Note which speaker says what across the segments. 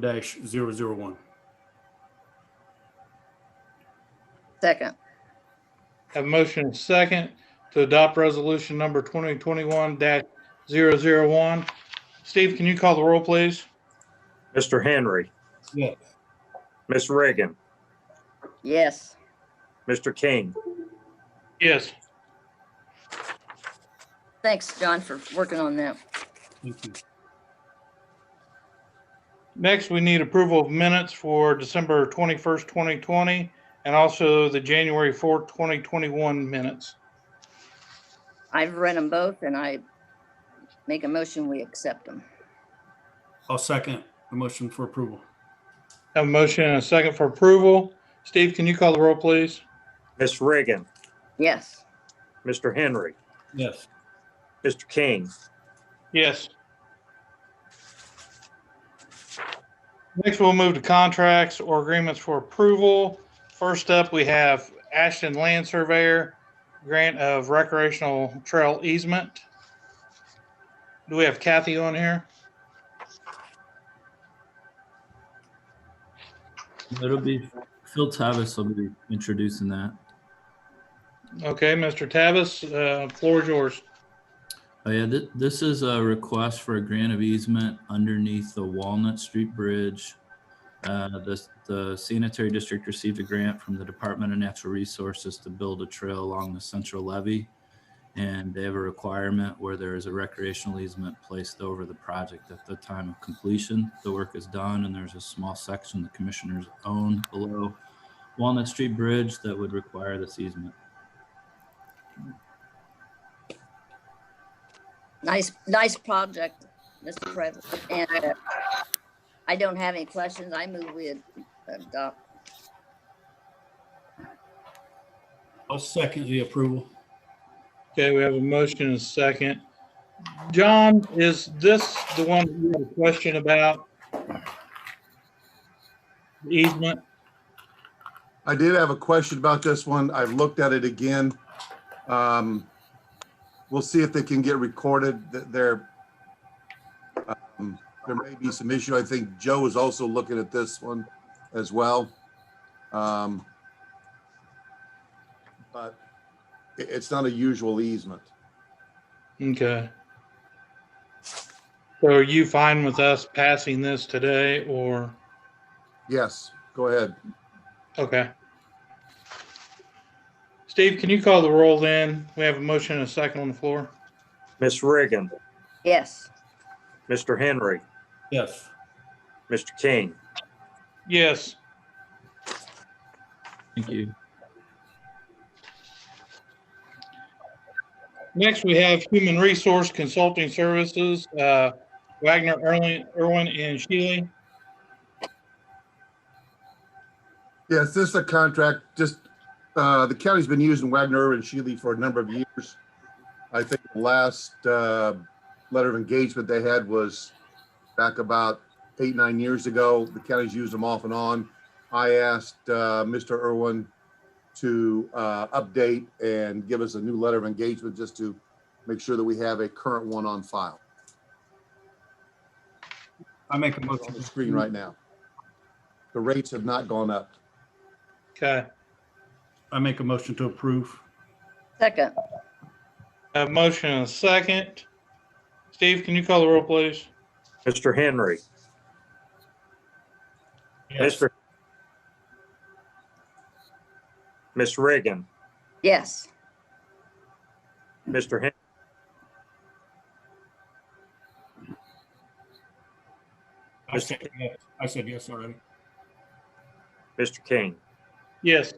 Speaker 1: dash zero zero one.
Speaker 2: Second.
Speaker 3: Have a motion and second to adopt resolution number 2021-001. Steve, can you call the roll, please?
Speaker 4: Mr. Henry.
Speaker 1: Yes.
Speaker 4: Ms. Reagan,
Speaker 2: Yes.
Speaker 4: Mr. King,
Speaker 3: Yes.
Speaker 2: Thanks, John, for working on that.
Speaker 1: Thank you.
Speaker 3: Next, we need approval of minutes for December 21st, 2020, and also the January 4th, 2021 minutes.
Speaker 2: I've read them both and I make a motion, we accept them.
Speaker 1: I'll second the motion for approval.
Speaker 3: Have a motion and a second for approval. Steve, can you call the roll, please?
Speaker 4: Ms. Reagan,
Speaker 2: Yes.
Speaker 4: Mr. Henry,
Speaker 1: Yes.
Speaker 4: Mr. King,
Speaker 3: Yes. Next, we'll move to contracts or agreements for approval. First up, we have Ashton Land Surveyor, grant of recreational trail easement. Do we have Kathy on here?
Speaker 5: It'll be Phil Tavis will be introducing that.
Speaker 3: Okay, Mr. Tavis, uh, floor is yours.
Speaker 5: Oh yeah, th- this is a request for a grant of easement underneath the Walnut Street Bridge. Uh, the, the sanitary district received a grant from the Department of Natural Resources to build a trail along the central levee. And they have a requirement where there is a recreational easement placed over the project at the time of completion. The work is done and there's a small section the commissioners own below Walnut Street Bridge that would require this easement.
Speaker 2: Nice, nice project, Mr. President. And uh, I don't have any questions. I move with adopt.
Speaker 1: I'll second the approval.
Speaker 3: Okay, we have a motion and a second. John, is this the one that you had a question about? Easement?
Speaker 6: I did have a question about this one. I've looked at it again. Um, We'll see if they can get recorded. Th- There, um, there may be some issue. I think Joe is also looking at this one as well. Um, But i- it's not a usual easement.
Speaker 3: Okay. So are you fine with us passing this today or,
Speaker 6: Yes, go ahead.
Speaker 3: okay. Steve, can you call the roll then? We have a motion and a second on the floor.
Speaker 4: Ms. Reagan,
Speaker 2: Yes.
Speaker 4: Mr. Henry,
Speaker 1: Yes.
Speaker 4: Mr. King,
Speaker 3: Yes.
Speaker 5: Thank you.
Speaker 3: Next, we have Human Resource Consulting Services, uh, Wagner, Erlin, Erwin, and Shealy.
Speaker 6: Yes, this is a contract, just, uh, the county's been using Wagner and Shealy for a number of years. I think the last, uh, letter of engagement they had was back about eight, nine years ago. The county's used them off and on. I asked, uh, Mr. Irwin to, uh, update and give us a new letter of engagement just to make sure that we have a current one on file.
Speaker 1: I make a
Speaker 6: It's
Speaker 1: motion.
Speaker 6: on the screen right now. The rates have not gone up.
Speaker 3: Okay.
Speaker 1: I make a motion to approve.
Speaker 2: Second.
Speaker 3: Have a motion and a second. Steve, can you call the roll, please?
Speaker 4: Mr. Henry, Mr. Ms. Reagan,
Speaker 2: Yes.
Speaker 4: Mr. Hen,
Speaker 1: I said yes. I said yes already.
Speaker 4: Mr. King.
Speaker 3: Yes.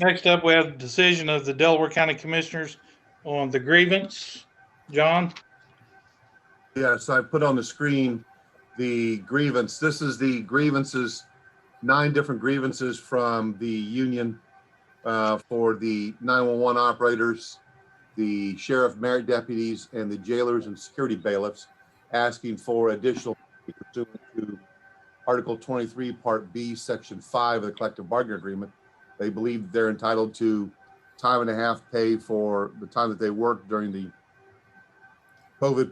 Speaker 3: Next up, we have the decision of the Delaware County Commissioners on the grievance. John?
Speaker 6: Yeah, so I put on the screen the grievance. This is the grievances, nine different grievances from the union uh, for the 911 operators, the sheriff, merit deputies, and the jailers and security bailiffs, asking for additional pay pursuant to Article 23, Part B, Section 5 of the collective bargaining agreement. They believe they're entitled to time and a half pay for the time that they worked during the COVID